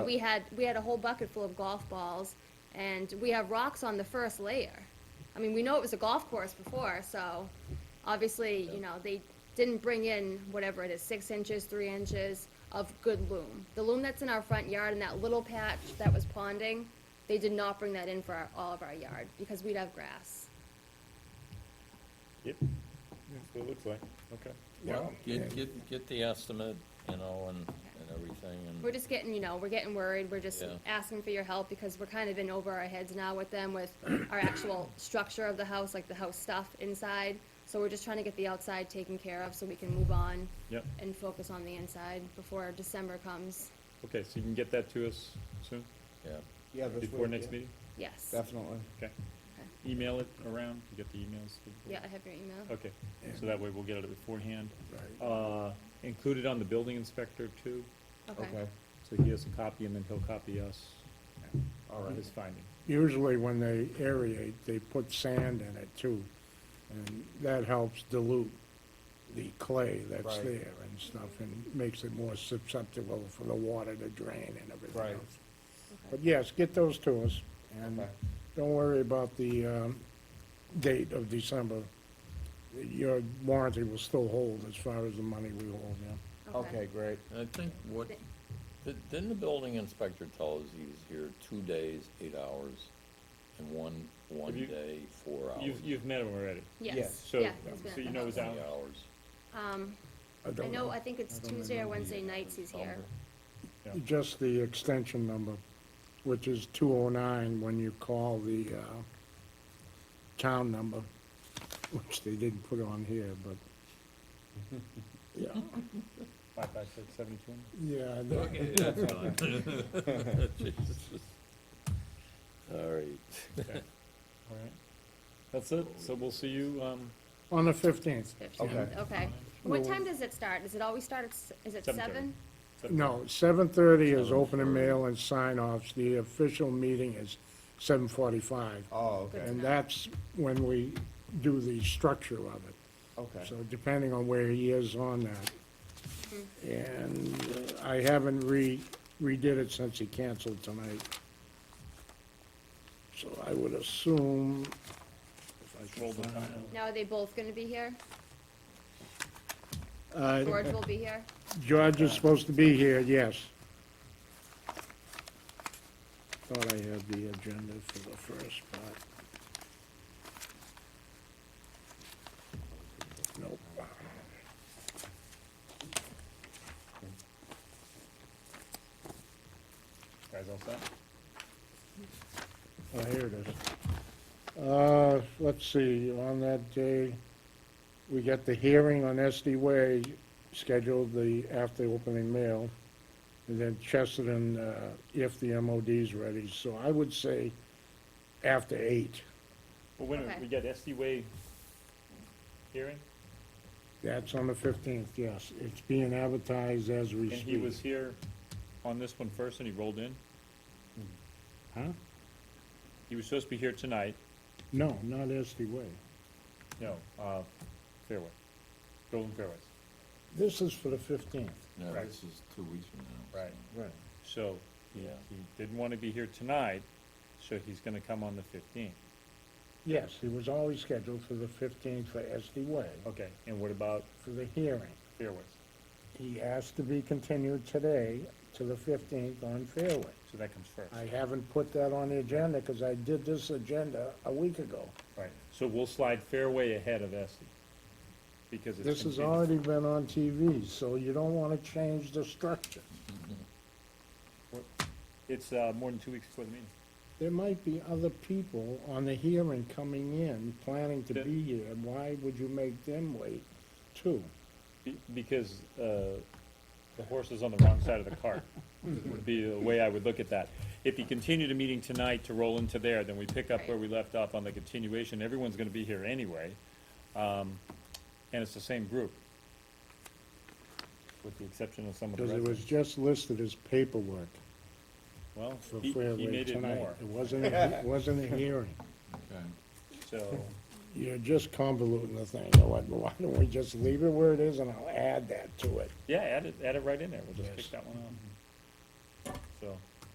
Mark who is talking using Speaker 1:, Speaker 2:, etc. Speaker 1: We had, we had a whole bucket full of golf balls, and we have rocks on the first layer. I mean, we know it was a golf course before, so obviously, you know, they didn't bring in whatever it is, six inches, three inches of good loom. The loom that's in our front yard and that little patch that was ponding, they did not bring that in for our- all of our yard, because we'd have grass.
Speaker 2: Yep, that's what it looks like, okay.
Speaker 3: Well,
Speaker 4: Get,
Speaker 3: yeah,
Speaker 4: get, get the estimate, you know, and, and everything,
Speaker 1: We're
Speaker 4: and,
Speaker 1: just getting, you know, we're getting worried, we're just
Speaker 4: Yeah.
Speaker 1: asking for your help, because we're kind of in over our heads now with them, with our actual structure of the house, like the house stuff inside. So we're just trying to get the outside taken care of, so we can move on.
Speaker 2: Yep.
Speaker 1: And focus on the inside before December comes,
Speaker 2: Okay, so you can get that to us soon,
Speaker 4: yeah.
Speaker 3: yeah, this
Speaker 2: before
Speaker 3: week,
Speaker 2: next
Speaker 3: yeah.
Speaker 2: meeting?
Speaker 1: yes.
Speaker 3: Definitely.
Speaker 2: Okay. Email it around, you get the emails? to the board?
Speaker 1: Yeah, I have your email.
Speaker 2: Okay, so that way we'll get it beforehand.
Speaker 3: Right.
Speaker 2: Uh, included on the building inspector too,
Speaker 1: Okay.
Speaker 2: so he has a copy and then he'll copy us
Speaker 3: All
Speaker 2: on his
Speaker 3: right.
Speaker 2: finding.
Speaker 5: Usually when they aerate, they put sand in it too, and that helps dilute the clay that's
Speaker 3: Right.
Speaker 5: there and stuff, and makes it more susceptible for the water to drain and everything
Speaker 3: Right.
Speaker 5: else. But yes, get those to us, and
Speaker 3: Okay.
Speaker 5: don't worry about the, um, date of December. Your warranty will still hold as far as the money we hold, yeah.
Speaker 3: Okay, great.
Speaker 4: And I think what, di- didn't the building inspector tell us he was here two days, eight hours, and one, one
Speaker 2: Have you-
Speaker 4: day, four hours?
Speaker 2: You've, you've met him already,
Speaker 3: Yes,
Speaker 1: Yes,
Speaker 2: so, um,
Speaker 1: yeah. he's been at
Speaker 2: so you
Speaker 1: the
Speaker 2: know his
Speaker 1: house.
Speaker 2: hours.
Speaker 4: Three hours.
Speaker 1: Um, I
Speaker 5: don't
Speaker 1: know, I think it's
Speaker 5: I don't
Speaker 1: Tuesday or
Speaker 5: remember
Speaker 1: Wednesday nights he's here.
Speaker 2: Yeah.
Speaker 5: Just the extension number, which is 209 when you call the uh, town number, which they didn't put on here, but, yeah,
Speaker 2: Five, five, six, seven, two.
Speaker 5: yeah. I know.
Speaker 4: Okay, that's fine. Jesus. All right.
Speaker 2: All right. That's it, so we'll see you, um,
Speaker 5: On the 15th.
Speaker 1: Fifteenth, okay. What time does it start? Does it always start at, s- is it
Speaker 2: Seven thirty.
Speaker 1: seven?
Speaker 2: September.
Speaker 5: No, 7:30 is open and mail and sign-offs. The official meeting is 7:45.
Speaker 3: Oh, okay,
Speaker 1: Good.
Speaker 5: And that's when we do the structure of it.
Speaker 3: okay.
Speaker 5: So depending on where he is on that. And uh, I haven't re, redid it since he canceled tonight. So I would assume, if I
Speaker 2: Roll
Speaker 5: can
Speaker 2: the
Speaker 5: find,
Speaker 2: time.
Speaker 1: Now, are they both gonna be here?
Speaker 5: uh,
Speaker 1: George will be here?
Speaker 5: George is supposed to be here, yes. Thought I had the agenda for the first part. Nope.
Speaker 2: Guys all set?
Speaker 5: Oh, here it is. Uh, let's see, on that day, we got the hearing on SD Way scheduled the, after opening mail. And then Chesterton, uh, if the MOD's ready, so I would say after eight.
Speaker 2: Well, wait a minute,
Speaker 1: Okay.
Speaker 2: we got SD Way hearing,
Speaker 5: That's on the fifteenth, yes. It's being advertised as we
Speaker 2: and
Speaker 5: speak.
Speaker 2: he was here on this one first and he rolled in.
Speaker 5: Huh?
Speaker 2: He was supposed to be here tonight,
Speaker 5: No, not SD Way.
Speaker 2: no, uh, Fairway, Golden Fairways.
Speaker 5: This is for the fifteenth.
Speaker 4: No,
Speaker 2: Right.
Speaker 4: this is two weeks from now.
Speaker 2: Right.
Speaker 5: Right.
Speaker 2: So, he,
Speaker 4: Yeah.
Speaker 2: he didn't wanna be here tonight, so he's gonna come on the fifteenth.
Speaker 5: Yes, it was always scheduled for the fifteenth for SD Way,
Speaker 2: Okay, and what about
Speaker 5: for the hearing.
Speaker 2: Fairways?
Speaker 5: He asked to be continued today to the 15th on Fairway.
Speaker 2: So that comes first,
Speaker 5: I haven't put that on the agenda because I did this agenda a week ago.
Speaker 2: right, so we'll slide Fairway ahead of SD. Because it's.
Speaker 5: This has
Speaker 2: continued.
Speaker 5: already been on TV, so you don't want to change the structure.
Speaker 2: It's, uh, more than two weeks before the meeting.
Speaker 5: There might be other people on the hearing coming in, planning to
Speaker 2: Yeah.
Speaker 5: be here. Why would you make them wait too?
Speaker 2: Be- Because uh, the horse is on the wrong side of the cart, would be the way I would look at that. If you continue the meeting tonight to roll into there, then we pick up where we left off on the continuation. Everyone's gonna be here anyway. Um, And it's the same group, with the exception of some of the
Speaker 5: Because it was
Speaker 2: residents.
Speaker 5: just listed as paperwork
Speaker 2: Well,
Speaker 5: for
Speaker 2: he he
Speaker 5: Fairway
Speaker 2: made it
Speaker 5: tonight.
Speaker 2: more,
Speaker 5: It wasn't, a- it wasn't a hearing.
Speaker 4: Okay.
Speaker 2: so,
Speaker 5: You're just convoluting the thing, you know what, why don't we just leave it where it is and I'll add that to it?
Speaker 2: yeah, add it, add it right in there. We'll just
Speaker 5: Yes. Mm-hmm.
Speaker 2: pick that one up. So,